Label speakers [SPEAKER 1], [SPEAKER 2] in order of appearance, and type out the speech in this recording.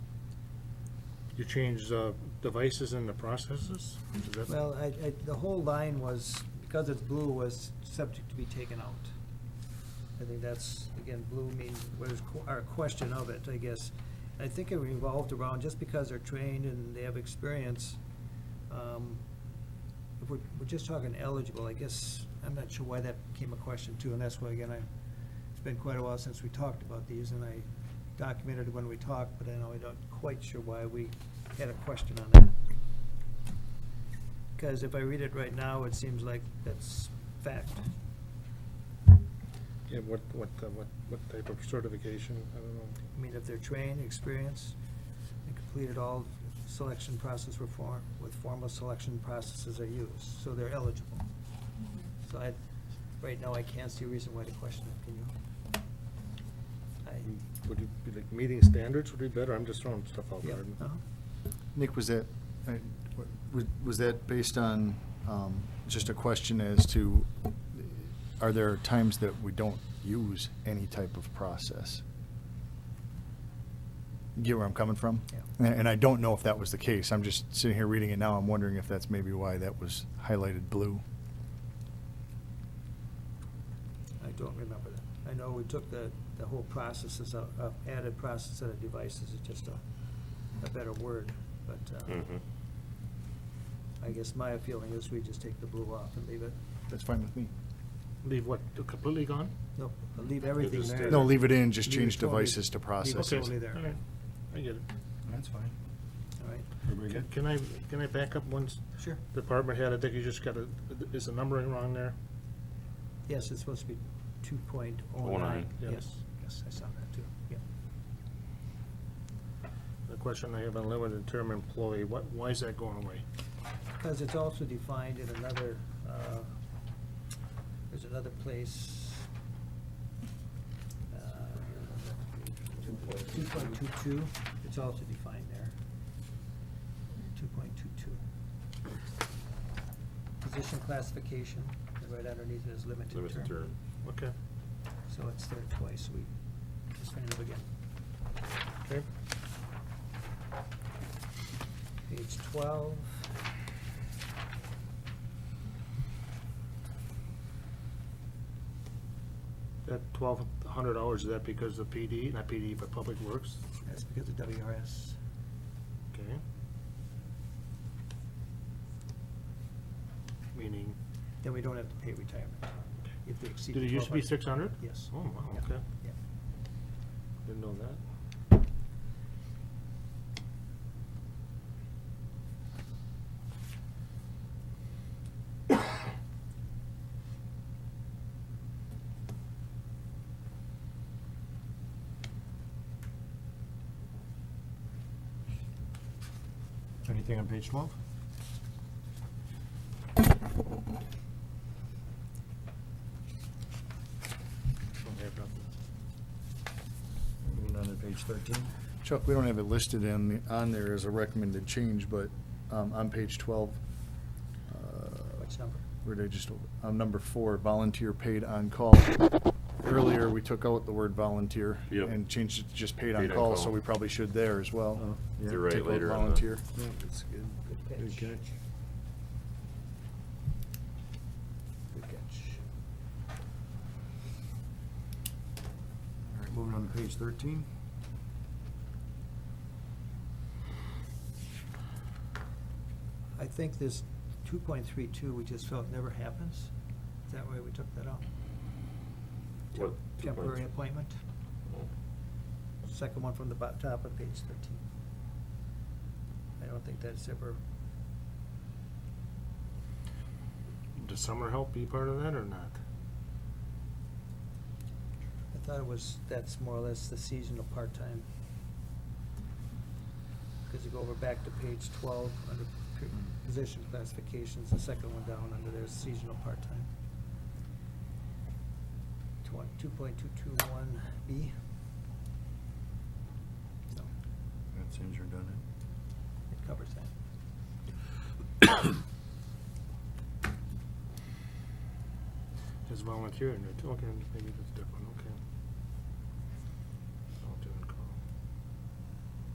[SPEAKER 1] You changed the devices and the processes? Is that-
[SPEAKER 2] Well, uh, I, I, the whole line was, because it's blue, was subject to be taken out. I think that's, again, blue means, was qu- our question of it, I guess. I think it revolved around, just because they're trained and they have experience, um, if we're, we're just talking eligible, I guess, I'm not sure why that became a question too, and that's why, again, I, it's been quite a while since we talked about these, and I documented when we talked, but I know I'm not quite sure why we had a question on that. Because if I read it right now, it seems like that's fact.
[SPEAKER 1] Yeah, what, what, uh, what, what type of certification? I don't know.
[SPEAKER 2] I mean, if they're trained, experienced, and completed all selection process reform, with formal selection processes are used, so they're eligible. So I, right now, I can't see a reason why to question it, can you?
[SPEAKER 1] Hmm.
[SPEAKER 2] I,
[SPEAKER 1] Mm, Would you, be like, meeting standards would be better? I'm just throwing stuff out
[SPEAKER 2] yeah, uh-huh.
[SPEAKER 1] there.
[SPEAKER 2] no?
[SPEAKER 3] Nick, was that, I- wa- was that based on um, just a question as to, are there times that we don't use any type of process? You Get where I'm coming from?
[SPEAKER 2] Yeah.
[SPEAKER 3] And- And I don't know if that was the case. I'm just sitting here reading it now. I'm wondering if that's maybe why that was highlighted blue.
[SPEAKER 2] I don't remember that. I know we took the, the whole processes, out- uh, added process set of devices, it's just a, a better word, but, uh,
[SPEAKER 4] Mm-hmm.
[SPEAKER 2] I guess my feeling is we just take the blue off and leave it,
[SPEAKER 3] That's fine with me.
[SPEAKER 1] Leave what, completely gone?
[SPEAKER 2] no, leave everything
[SPEAKER 1] Just, uh,
[SPEAKER 2] there.
[SPEAKER 3] No, leave it in, just
[SPEAKER 2] Leave it
[SPEAKER 3] change
[SPEAKER 2] totally-
[SPEAKER 3] devices to
[SPEAKER 2] leave it
[SPEAKER 3] processes.
[SPEAKER 2] totally there,
[SPEAKER 1] All right, I get it.
[SPEAKER 5] That's fine.
[SPEAKER 2] all right,
[SPEAKER 5] Everybody good?
[SPEAKER 1] Can I, can I back up one s-
[SPEAKER 2] sure.
[SPEAKER 1] department head? I think you just got a, is the numbering wrong there?
[SPEAKER 2] Yes, it's supposed to be two point oh
[SPEAKER 4] Oh
[SPEAKER 2] nine,
[SPEAKER 4] nine.
[SPEAKER 2] yes, yes, I saw that too, yeah.
[SPEAKER 1] The question I have on limited term employee, what, why is that going away?
[SPEAKER 2] Because it's also defined in another, uh, there's another place. Uh, Two point two two, it's also defined there. Two point two two. Position classification, and right underneath it is limited term.
[SPEAKER 4] Limited term.
[SPEAKER 1] Okay,
[SPEAKER 2] So it's there twice, we defined it again.
[SPEAKER 1] okay.
[SPEAKER 2] Page twelve.
[SPEAKER 1] That twelve hundred hours, is that because of PD, not PD, but Public Works?
[SPEAKER 2] That's because of WRS.
[SPEAKER 1] Okay. Meaning,
[SPEAKER 2] Then we don't have to pay retirement if they exceed.
[SPEAKER 1] did it used to be
[SPEAKER 2] 1200.
[SPEAKER 1] six hundred?
[SPEAKER 2] Yes.
[SPEAKER 1] Oh, wow,
[SPEAKER 2] Yeah,
[SPEAKER 1] okay,
[SPEAKER 2] yeah.
[SPEAKER 1] didn't know that.
[SPEAKER 5] Anything on page twelve?
[SPEAKER 1] Don't have nothing.
[SPEAKER 5] Moving on to page thirteen.
[SPEAKER 3] Chuck, we don't have it listed in, the- on there as a recommended change, but um, on page 12, uh,
[SPEAKER 2] Which number?
[SPEAKER 3] where did I just, on number four, volunteer paid on-call. Earlier, we took out the word volunteer
[SPEAKER 4] Yep.
[SPEAKER 3] and changed it to just paid
[SPEAKER 4] Paid
[SPEAKER 3] on-call,
[SPEAKER 4] on-call.
[SPEAKER 3] so we probably should there as well.
[SPEAKER 4] You're right,
[SPEAKER 3] Take out
[SPEAKER 4] later on the-
[SPEAKER 3] Volunteer.
[SPEAKER 5] That's good. Good
[SPEAKER 2] Good catch.
[SPEAKER 5] catch.
[SPEAKER 2] Good catch.
[SPEAKER 5] All right, moving on to page thirteen.
[SPEAKER 2] I think this two point three two, we just felt never happens. Is that why we took that out?
[SPEAKER 4] What?
[SPEAKER 2] Temporary appointment, second one from the bo- top of page thirteen. I don't think that's ever,
[SPEAKER 1] Does summer help be part of that or not?
[SPEAKER 2] I thought it was, that's more or less the seasonal part-time. Because you go over back to page twelve, under p- position classifications, the second one down under there, seasonal part-time. Two point two two one B. So,
[SPEAKER 5] That seems redundant.
[SPEAKER 2] it covers that.
[SPEAKER 1] Is volunteer in it? Okay, maybe that's different,